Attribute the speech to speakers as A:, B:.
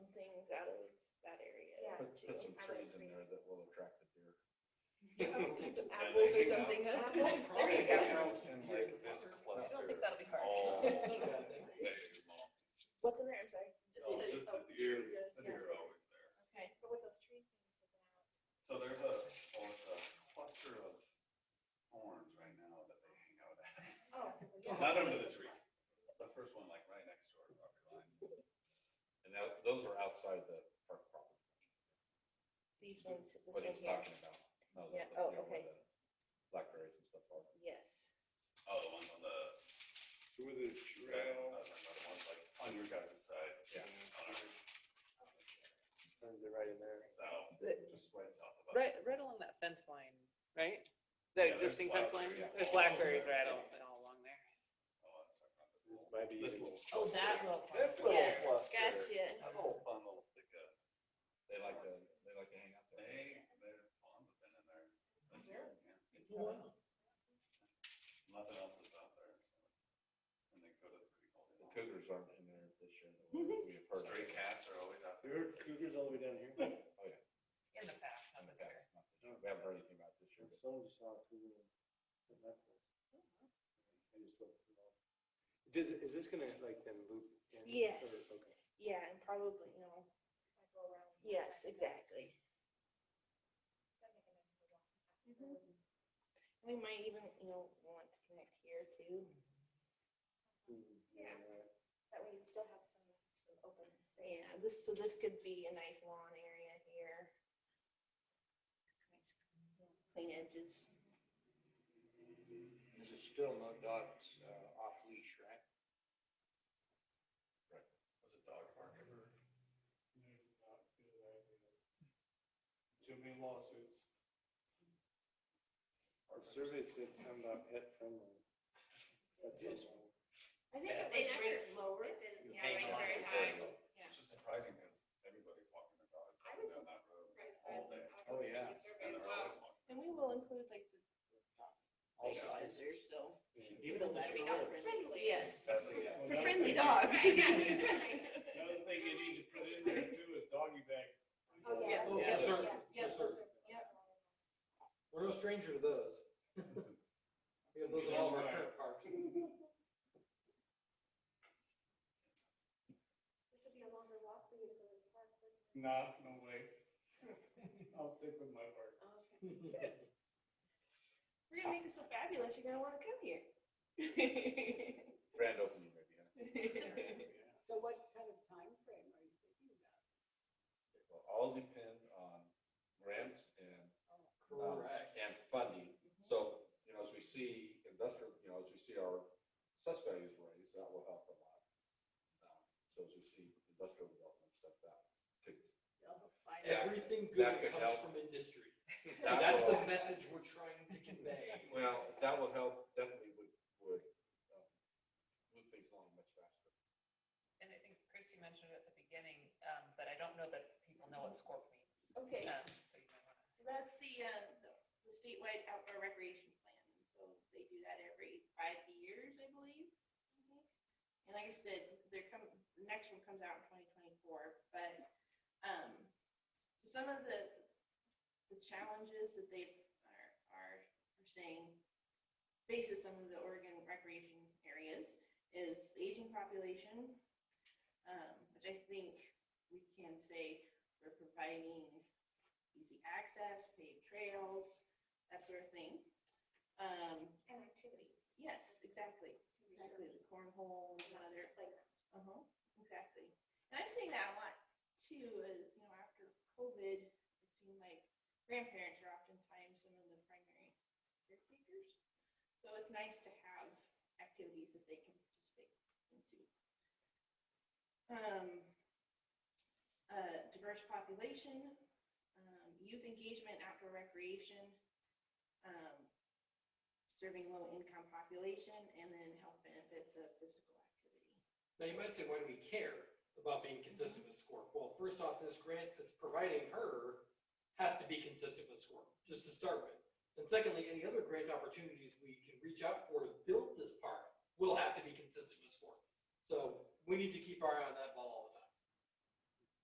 A: put some trees in there that will attract the deer.
B: Apples or something.
C: Apples.
B: There you go.
D: In like this
C: I
D: cluster.
C: don't think that'll be hard.
D: all day long.
B: What's in there? I'm sorry.
D: Oh,
C: the-
D: just
C: oh,
D: the deer,
C: yes,
D: the
C: yeah.
D: deer are always there.
C: Okay.
E: But with those trees being taken out.
D: So there's a, well, it's a cluster of thorns right now that they hang out at.
E: Oh.
D: Not under the trees. The first one like right next to our property line.
A: And that, those are outside the park property,
B: These ones, this
A: what
B: one
A: he's
B: here.
A: talking about. No, that's
B: Yeah,
A: the-
B: oh,
A: you know, where
B: okay.
A: the Blackberries and stuff are.
B: Yes.
D: Oh, the ones on the,
F: With the
D: side,
F: trail.
D: I was talking about Oh, the ones like on your guys' side.
A: Yeah.
D: On our
F: They're right in there.
D: south,
C: The-
D: just right south of us.
C: Right, right along that fence line, right? That
D: Yeah, there's
C: existing fence line?
D: blackberry, yeah.
C: There's blackberries right all, all along there.
D: Oh, I was talking about this little-
F: Might be
D: This
F: even-
D: little
C: Oh, that
D: cluster.
C: little
D: This
C: cluster.
D: little
C: Yeah,
D: cluster.
C: gotcha.
D: That little fun little stick of
A: They like to, they like to hang out there.
D: They, their ponds have been in there this year, yeah. Nothing else is out there. so. And they go to the creek all
A: The
D: day long.
A: cougars aren't in there this year. though. We have heard
D: Stray
A: that.
D: cats are always out
F: There are
D: there.
F: cougars all the way down here.
A: Oh, yeah.
C: In the past,
A: in
C: not
A: the
C: this
A: past,
C: year.
A: not this year. We haven't heard anything about this year, but
F: Someone just saw a cougar in that place. I just looked it up. Does, it- is this gonna like then loop? in, or-
B: Yes.
F: okay.
B: Yeah, and probably, you know, yes, exactly. Mm-hmm. Um, We might even, you know, want to connect here too.
F: Mhm,
E: Yeah.
F: right.
E: That way you'd still have some, some open space.
B: Yeah, this, so this could be a nice lawn area here. Nice Clean edges.
G: This is still no dogs uh, off leash, right?
D: Was it dog park ever?
F: Too many lawsuits. The survey said something about pet friendly. That's
G: Yes.
F: all.
E: I think it
C: They
E: was
C: never-
E: rated lower.
C: it didn't,
E: Yeah,
C: yeah,
E: rated
C: very
E: very
C: high.
E: high.
D: Which is surprising because everybody's walking their dogs
E: I
D: up and
E: was
D: down that road
E: Right, so
D: all
E: I-
D: day.
E: I've
G: Oh,
E: heard
G: yeah.
E: the
D: And
E: survey as
D: they're
E: well.
D: always walking.
B: And we will include like the
G: All
B: dog
G: sizes.
B: sensors, so.
G: Even
B: so
G: on the
B: that'd be
G: trail.
E: friendly.
B: Yes.
D: Definitely, yes.
B: For friendly dogs.
F: Another thing you need to put in there too is doggy bag.
E: Oh, yeah.
G: Oh,
B: yes,
G: sir.
E: Yeah.
G: Yes, sir.
E: Yep.
G: We're no stranger to those. We have those in all of our current parks.
E: This would be a longer walk for you to go to the park. wouldn't it?
D: Mm.
F: Nah, no way. I'll stick with my work.
B: Okay. We're gonna make this so fabulous, you're gonna wanna come here.
A: grand opening maybe, huh?
H: So what kind of time frame are you thinking about?
A: It will all depend on grants and um,
G: Correct. Mm-hmm.
A: and funding. So, you know, as we see industrial, you know, as we see our assessed values raise, that will help a lot. Um, So as we see industrial development stuff, that could.
H: They'll find
A: Yeah.
H: out.
G: Everything
A: That
G: good
A: could
G: comes
A: help.
G: from industry.
A: that
G: That's
A: will-
G: the message we're trying to convey.
A: Well, that will help, definitely would, would um, move things along much faster.
C: And I think Christy mentioned it at the beginning, um, but I don't know that people know what scorp means.
B: Okay,
C: Um, so you might wanna.
B: so that's the, uh, the- the statewide outdoor recreation plan. So they do that every five years, I believe. And like I said, they're coming, the next one comes out in twenty twenty-four, but, um, so some of the, the challenges that they are, are are saying faces some of the Oregon recreation areas is the aging population, um, which I think we can say we're providing easy access, paved trails, that sort of thing. Um,
E: And activities.
B: yes, exactly, exactly, the cornhole and
E: Not
B: other
E: just a playground.
B: uh-huh, exactly. And I'm seeing that a lot too, is, you know, after COVID, it seemed like grandparents are oftentimes some of the primary caretakers. So it's nice to have activities that they can participate into. Um, uh, diverse population, um, youth engagement, outdoor recreation, um, serving low-income population, and then health benefits of physical activity.
G: Now, you might say, why do we care about being consistent with SCORP? Well, first off, this grant that's providing her has to be consistent with SCORP, just to start with. And secondly, any other grant opportunities we can reach out for to build this park will have to be consistent with SCORP. So we need to keep our eye on that ball all